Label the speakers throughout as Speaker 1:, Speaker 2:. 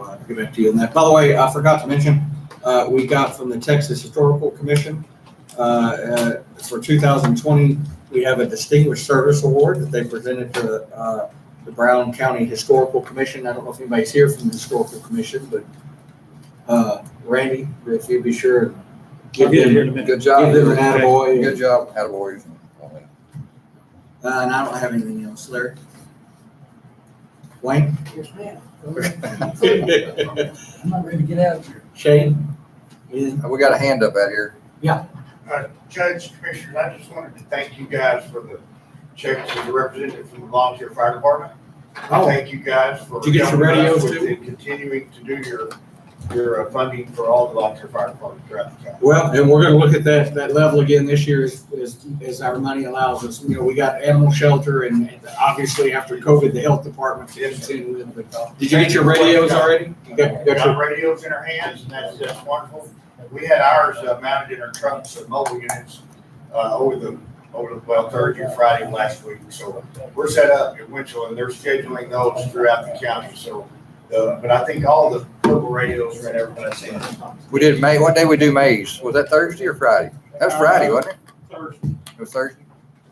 Speaker 1: uh, give it to you on that. By the way, I forgot to mention, uh, we got from the Texas Historical Commission, uh, uh, for two thousand twenty, we have a Distinguished Service Award that they presented to, uh, the Brown County Historical Commission. I don't know if anybody's here from the Historical Commission, but, uh, Randy, if you'd be sure.
Speaker 2: I'll get it here in a minute.
Speaker 3: Good
Speaker 1: Give
Speaker 3: job.
Speaker 1: them an attaboy.
Speaker 3: Good job, attaboy.
Speaker 1: Uh, and I don't have anything else, Larry. Wayne?
Speaker 4: Yes, ma'am. Go ahead. I'm not ready to get out of here.
Speaker 1: Shane? Anything?
Speaker 3: We got a hand up out here.
Speaker 5: Uh, Judge, Commissioners, I just wanted to thank you guys for the checks as a representative from the volunteer fire department. I
Speaker 1: Oh.
Speaker 5: Thank you guys for.
Speaker 1: Did you get your
Speaker 5: helping
Speaker 1: radios
Speaker 5: us with
Speaker 1: too?
Speaker 5: and Continuing to do your, your uh, funding for all the volunteer fire departments throughout the county.
Speaker 1: Well, and we're gonna look at that, that level again this year as, as, as our money allows us. You know, we got animal shelter and and obviously after COVID, the health department. to continue with, but- Did you get your radios already? You got,
Speaker 5: We
Speaker 1: got
Speaker 5: got
Speaker 1: your,
Speaker 5: radios in our hands, and that's, that's wonderful. We had ours uh, mounted in our trucks and mobile units, uh, over the, over the, well, Thursday, and Friday of last week. So we're set up in Winchell, and they're scheduling those throughout the county, so, uh, but I think all the purple radios are in everybody's hands.
Speaker 3: We did May, what day we do Mays? Was that Thursday or Friday? That was Friday, wasn't
Speaker 5: Uh, Thursday,
Speaker 3: it? It was Thursday,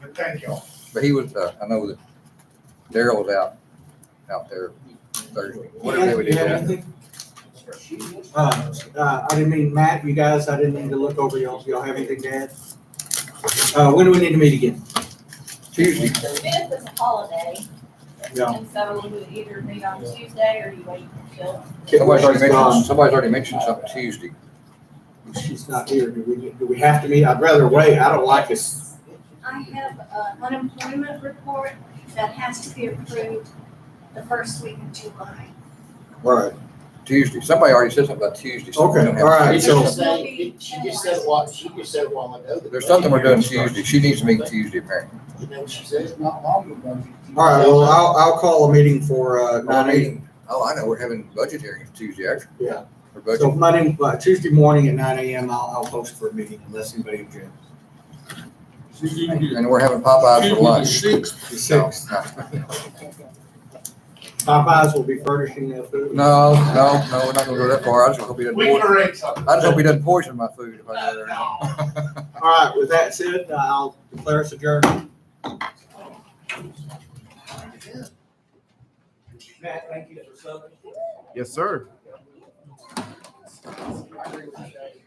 Speaker 5: but thank y'all.
Speaker 3: but he was, uh, I know that Daryl was out, out there Thursday. What day we
Speaker 1: you
Speaker 3: did
Speaker 1: have
Speaker 3: that?
Speaker 1: anything? Uh, uh, I didn't mean, Matt, you guys, I didn't mean to look over y'all. Y'all have anything to add? Uh, when do we need to meet again?
Speaker 3: Tuesday.
Speaker 6: The fifth is a holiday,
Speaker 1: Yeah.
Speaker 6: and so we would either meet on Tuesday or you wait until.
Speaker 3: Somebody's already
Speaker 1: She's gone.
Speaker 3: mentioned, somebody's already mentioned something Tuesday.
Speaker 1: She's not here. Do we, do we have to meet? I'd rather wait. I don't like this.
Speaker 6: I have an unemployment report that has to be approved the first week of July.
Speaker 1: Right.
Speaker 3: Tuesday. Somebody already said something about Tuesday. so we
Speaker 1: Okay,
Speaker 3: don't have-
Speaker 1: all right,
Speaker 7: She
Speaker 1: so,
Speaker 7: just said, she just said a while, she just said a while ago. that-
Speaker 3: There's something we're doing Tuesday. She needs to meet Tuesday, Mary.
Speaker 7: You know what she said?
Speaker 4: It's not long ago.
Speaker 1: all right, well, I'll, I'll call a meeting for, uh,
Speaker 3: Our
Speaker 1: nine eight.
Speaker 3: meeting. Oh, I know, we're having budget hearings Tuesday, actually.
Speaker 1: Yeah.
Speaker 3: For budget.
Speaker 1: So Monday, uh, Tuesday morning at nine AM, I'll, I'll post for a meeting unless anybody objects.
Speaker 3: And we're having Popeyes for lunch.
Speaker 1: The sixth, Popeyes will be furnishing their food.
Speaker 3: No, no, no, we're not gonna go that far. I just hope he doesn't,
Speaker 5: We can
Speaker 3: poison-
Speaker 5: arrange something.
Speaker 3: I just hope he doesn't poison my food if I go there.
Speaker 1: All right, with that said, I'll declare us adjourned.
Speaker 5: Matt, thank you for something.
Speaker 8: Yes, sir.